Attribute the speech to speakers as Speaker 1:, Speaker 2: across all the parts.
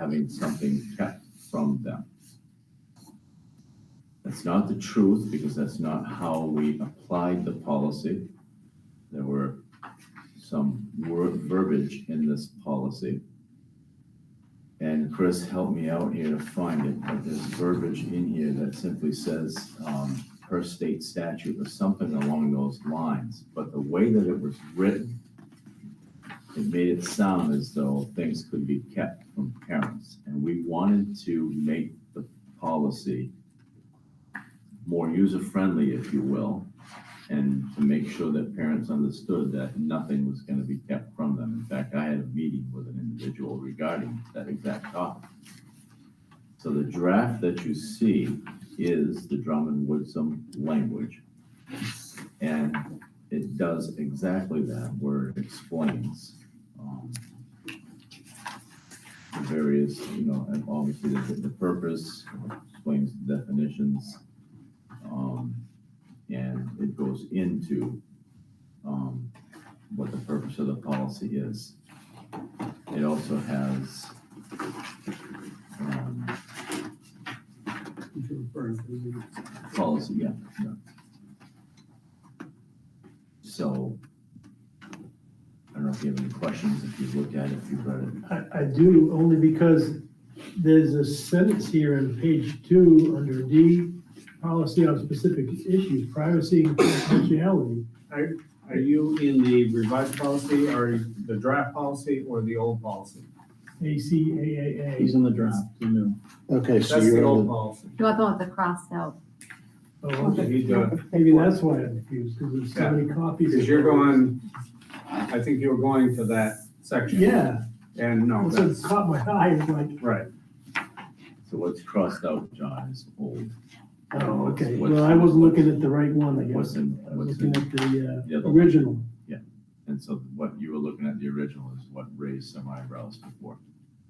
Speaker 1: having something kept from them. That's not the truth, because that's not how we applied the policy. There were some word verbiage in this policy. And Chris helped me out here to find it, but there's verbiage in here that simply says, um, per state statute or something along those lines. But the way that it was written, it made it sound as though things could be kept from parents. And we wanted to make the policy more user-friendly, if you will, and to make sure that parents understood that nothing was gonna be kept from them. In fact, I had a meeting with an individual regarding that exact topic. So the draft that you see is the Drummond Woodsum language. And it does exactly that, where it explains um, the various, you know, and obviously the, the purpose, explains the definitions. um, And it goes into um, what the purpose of the policy is. It also has um, policy, yeah, yeah. So, I don't know if you have any questions, if you've looked at it, if you've read it.
Speaker 2: I, I do, only because there's a sentence here on page two, under D, policy on specific issues, privacy and confidentiality.
Speaker 3: Are you in the revised policy or the draft policy or the old policy?
Speaker 2: ACAAA.
Speaker 4: He's in the draft, you knew.
Speaker 5: Okay, so
Speaker 3: That's the
Speaker 5: you're
Speaker 3: old
Speaker 5: in the,
Speaker 3: policy.
Speaker 6: Do I go with the crossed out?
Speaker 2: Oh,
Speaker 3: Okay,
Speaker 2: okay.
Speaker 3: you do it.
Speaker 2: Maybe that's why I'm confused, because there's so many copies.
Speaker 3: Because you're going, I think you're going to that section.
Speaker 2: Yeah,
Speaker 3: And no,
Speaker 2: so it
Speaker 3: that's,
Speaker 2: caught my eye, it's like,
Speaker 3: right.
Speaker 1: So what's crossed out, John, is old.
Speaker 2: oh, okay,
Speaker 1: What's-
Speaker 2: well, I wasn't looking at the right one, I
Speaker 1: What's
Speaker 2: guess.
Speaker 1: in,
Speaker 2: I was
Speaker 1: what's in,
Speaker 2: Oh, looking at the,
Speaker 1: the
Speaker 2: uh,
Speaker 1: other one.
Speaker 2: original.
Speaker 1: And so what you were looking at, the original, is what raised some eyebrows before.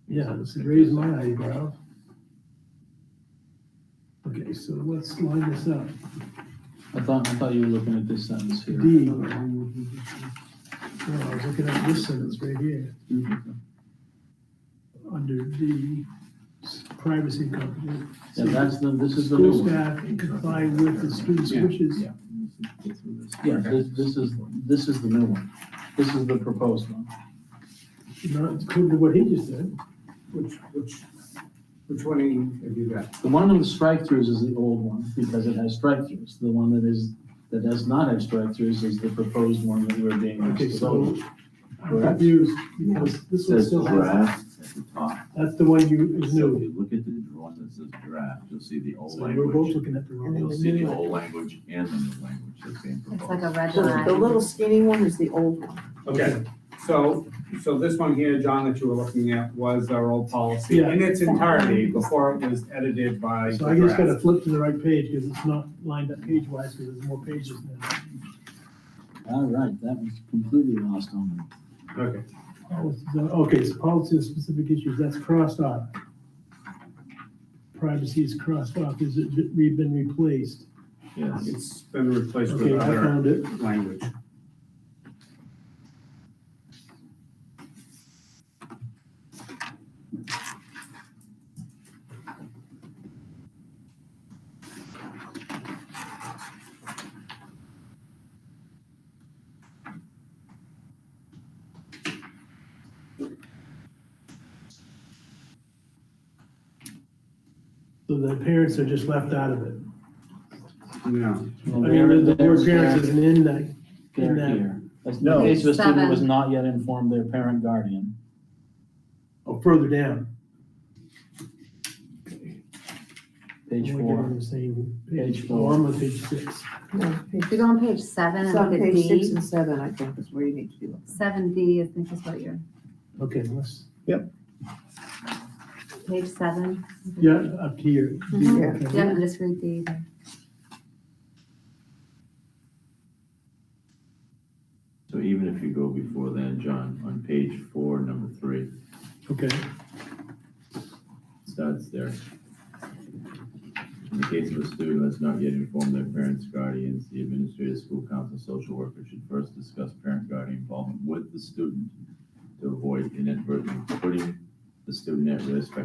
Speaker 2: Yeah, it's raised my eyebrow. Okay, so let's line this up.
Speaker 4: I thought, I thought you were looking at this sentence here.
Speaker 2: D. No, I was looking at this sentence right here, under D, privacy company.
Speaker 4: Yeah, that's the, this is the
Speaker 2: School
Speaker 4: new one.
Speaker 2: staff can comply with the student's
Speaker 4: Yeah.
Speaker 2: wishes.
Speaker 1: Yeah. Get through this.
Speaker 4: Yeah, this, this is, this is the new one. This is the proposed one.
Speaker 2: Not including what he just said.
Speaker 3: Which, which, which one have you got?
Speaker 4: The one with strike-throughs is the old one, because it has strike-throughs. The one that is, that does not have strike-throughs is the proposed one that we're being asked
Speaker 2: Okay,
Speaker 4: to
Speaker 2: so
Speaker 4: vote.
Speaker 2: I'm confused, because this one
Speaker 1: Says
Speaker 2: still has,
Speaker 1: draft at the top.
Speaker 2: that's the one you is
Speaker 1: So if
Speaker 2: new.
Speaker 1: you look at the drawing that says draft, you'll see the old
Speaker 2: So we're both
Speaker 1: language.
Speaker 2: looking at the wrong.
Speaker 1: You'll see the old language and the new language that's being
Speaker 6: It's like
Speaker 1: proposed.
Speaker 6: a red
Speaker 7: So The
Speaker 6: line.
Speaker 7: little skinny one is the old one.
Speaker 3: Okay, so, so this one here, John, that you were looking at was our old policy
Speaker 2: Yeah.
Speaker 3: in its entirety before it was edited by.
Speaker 2: So I just
Speaker 3: draft.
Speaker 2: gotta flip to the right page, because it's not lined up page-wise, because there's more pages now.
Speaker 4: All right, that was completely lost on me.
Speaker 3: Okay,
Speaker 2: Policies on- Oh, Okay, so policy of specific issues, that's crossed off. Privacy is crossed off, is it re- been replaced?
Speaker 1: Yes.
Speaker 3: it's been replaced with
Speaker 2: Okay, I
Speaker 3: other
Speaker 2: found it.
Speaker 3: language.
Speaker 2: So the parents are just left out of it.
Speaker 3: No,
Speaker 2: I mean, the the word parents isn't in that, in
Speaker 4: They're
Speaker 2: that-
Speaker 4: here. That's-
Speaker 5: No.
Speaker 4: In case the student
Speaker 6: Seven.
Speaker 4: was not yet informed their parent guardian.
Speaker 2: oh, further down.
Speaker 4: Page
Speaker 2: We're
Speaker 4: four.
Speaker 2: on the same
Speaker 4: Page
Speaker 2: page
Speaker 4: four.
Speaker 2: four, I'm on page six.
Speaker 7: No, page-
Speaker 6: If you go on page seven and
Speaker 7: It's
Speaker 6: look
Speaker 7: on
Speaker 6: at
Speaker 7: page six
Speaker 6: D,
Speaker 7: and seven, I think, is where you need to be looking.
Speaker 6: seven D, I think is what you're,
Speaker 2: Okay, let's,
Speaker 6: page seven.
Speaker 2: yeah, up here.
Speaker 6: Mhm.
Speaker 2: Okay.
Speaker 6: Yeah, and just read D. there.
Speaker 1: So even if you go before then, John, on page four, number three,
Speaker 2: Okay,
Speaker 1: starts there. In the case of a student who has not yet informed their parents, guardians, the administrative school council, social worker should first discuss parent guardian involvement with the student to avoid inadvertently putting the student at risk by